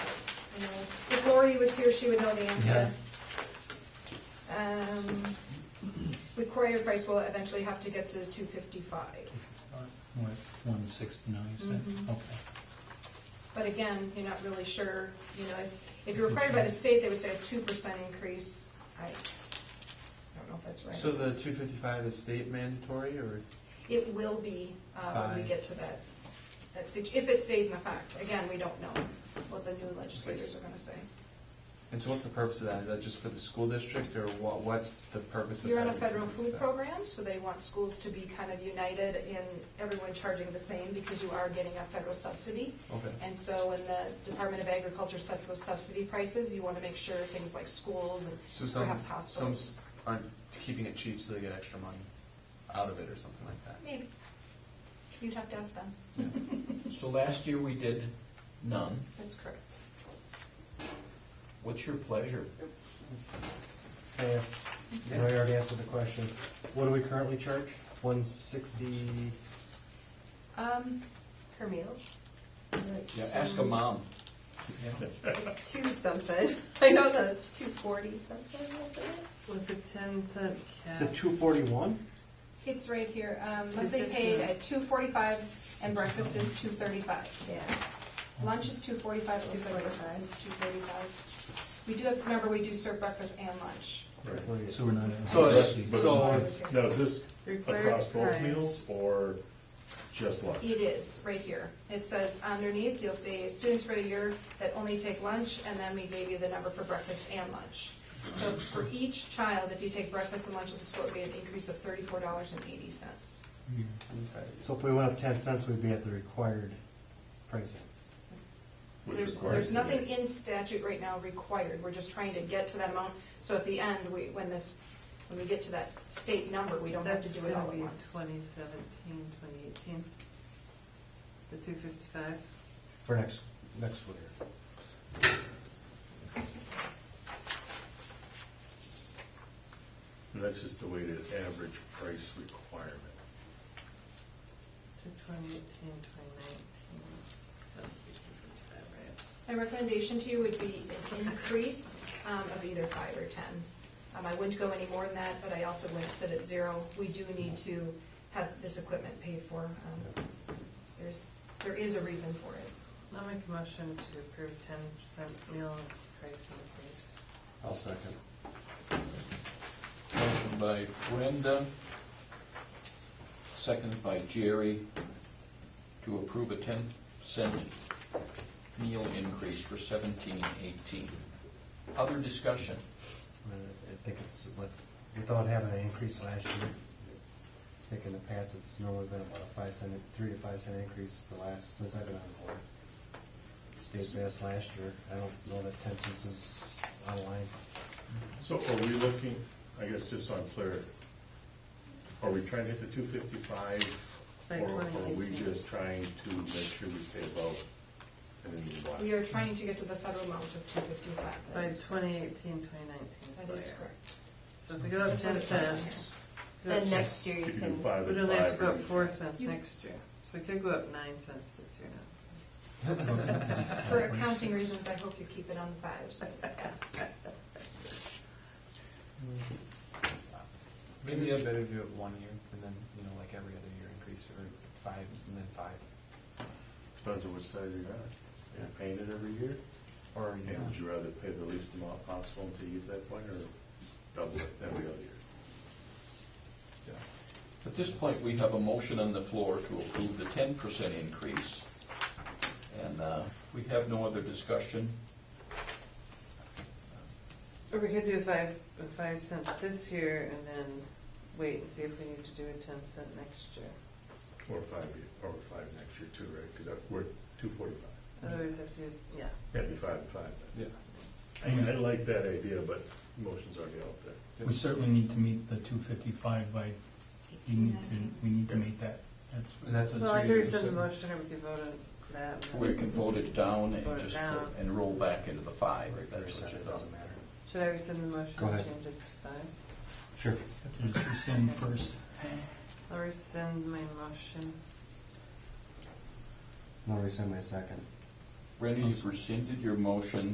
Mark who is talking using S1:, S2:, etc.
S1: if Lori was here, she would know the answer. Um, the Courier price will eventually have to get to two fifty-five.
S2: What, one sixty-nine, you said?
S1: Mhm.
S2: Okay.
S1: But again, you're not really sure, you know, if, if you're required by the state, they would say a two percent increase. I, I don't know if that's right.
S3: So the two fifty-five is state mandatory, or,
S1: It will be, uh, when we
S3: Fine.
S1: get to that, that situ, if it stays in effect. Again, we don't know what the new legislators are gonna say.
S3: and so what's the purpose of that? Is that just for the school district, or what, what's the purpose of?
S1: You're on a
S3: having
S1: federal
S3: something
S1: food
S3: like
S1: program, so they want schools to be kind of united in everyone charging the same because you are getting a federal subsidy.
S3: that? Okay,
S1: And so when the Department of Agriculture sets those subsidy prices, you wanna make sure things like schools and
S3: so some,
S1: Perhaps
S3: some
S1: hospitals.
S3: s- aren't keeping it cheap, so they get extra money out of it, or something like that.
S1: maybe, you'd have to ask them.
S4: So last year we did none.
S1: That's correct.
S4: What's your pleasure?
S5: I asked, I already answered the question. What do we currently charge? One sixty?
S1: Um, per meal,
S4: Yeah, ask a mom.
S6: It's two something. I know that it's two forty something. Wasn't it?
S7: Was a ten cent cap?
S5: Is it two forty-one?
S1: it's right here, um,
S7: Two
S1: monthly
S7: fifty.
S1: paid at two forty-five and breakfast is two thirty-five.
S6: Yeah.
S1: Lunch is two forty-five, looks like breakfast is two thirty-five. We do have, remember, we do serve breakfast and lunch.
S2: So we're not.
S4: uh,
S5: So
S2: Okay.
S5: it's-
S8: But
S5: so-
S8: is this- Now, is this
S7: Required
S8: across both
S7: price.
S8: meals or just lunch?
S1: It is, right here. It says underneath, you'll see students for a year that only take lunch, and then we gave you the number for breakfast and lunch. So for each child, if you take breakfast and lunch at the school, it'd be an increase of thirty-four dollars and eighty cents.
S2: Yeah.
S3: Okay.
S5: So if we went up ten cents, we'd be at the required pricing.
S8: which
S1: There's,
S8: requires
S1: there's
S8: the-
S1: nothing in statute right now required, we're just trying to get to that amount, so at the end, we, when this, when we get to that state number, we don't have to
S7: That's
S1: do it all
S7: gonna
S1: at
S7: be
S1: once.
S7: twenty seventeen, twenty eighteen. The two fifty-five.
S5: for next, next school year.
S8: And That's just the weighted average price requirement.
S7: To 2018, 2019. That's the 255, right?
S1: My recommendation to you would be an increase um, of either five or 10. Um, I wouldn't go any more than that, but I also wouldn't sit at zero. We do need to have this equipment paid for. Um, There's, there is a reason for it.
S7: I'll make a motion to approve ten percent meal price increase.
S5: I'll second.
S4: Motion by Brenda, seconded by Jerry, to approve a ten cent meal increase for seventeen eighteen. Other discussion?
S5: Uh, I think it's with, without having an increase last year, I think in the past, it's normally been about a five cent, three to five cent increase the last, since I've been on the board. State passed last year, I don't know that ten cents is online.
S8: So are we looking, I guess just so I'm clear, are we trying to hit the two fifty-five?
S7: By
S8: Or are we
S7: 2018.
S8: just trying to make sure we stay above and then you
S1: We are trying to get to the federal amount of 255.
S7: By
S1: That is-
S7: 2018, 2019.
S1: That is correct.
S7: So if we go up
S1: That's what
S7: ten
S1: it says
S7: cents. go up
S6: Then next year
S8: If
S6: you
S8: you do
S6: can.
S8: five
S7: We
S8: and
S7: don't have to
S8: five.
S7: go
S8: or
S7: up four
S8: you-
S7: cents next year, so we could go up nine cents this year now.
S1: For accounting reasons, I hope you keep it on the fives. but, yeah.
S3: Maybe it'd better do it one year, and then, you know, like every other year increase, or five, and then five,
S8: Depends on which side you're on. You're paying it every year?
S3: or, you
S8: And
S3: know.
S8: would you rather pay the least amount possible until you get to that point or double it every other year?
S4: At this point, we have a motion on the floor to approve the ten percent increase. And uh, we have no other discussion.
S7: Or we could do a five, a five cent this year and then wait and see if we need to do a ten cent next year.
S8: Or five, year- or five next year too, right? Because we're two forty-five.
S7: Otherwise, if you, yeah.
S8: It'd be five and five then.
S3: Yeah.
S8: I, I like that idea, but motion's already out there.
S2: We certainly need to meet the two fifty-five by, we need to,
S1: 18,
S2: we need to meet that. That's-
S3: And that's a
S7: Well, I could
S3: two-year
S7: rescind the
S3: decision.
S7: motion, or we could vote on that. and
S4: We
S7: then-
S4: can vote it down
S7: Vote
S4: and
S7: it
S4: just,
S7: down.
S4: and roll back into the five.
S5: Right,
S4: That's
S5: percent,
S4: what
S5: it
S4: you're
S5: doesn't
S4: doing.
S5: matter.
S7: Should I rescind the motion
S5: Go
S7: and
S5: ahead.
S7: change it to five?
S5: Sure.
S2: Have to just rescind first.
S7: I'll rescind my motion.
S5: I'll resend my second.
S4: Brenda, you've rescinded your motion.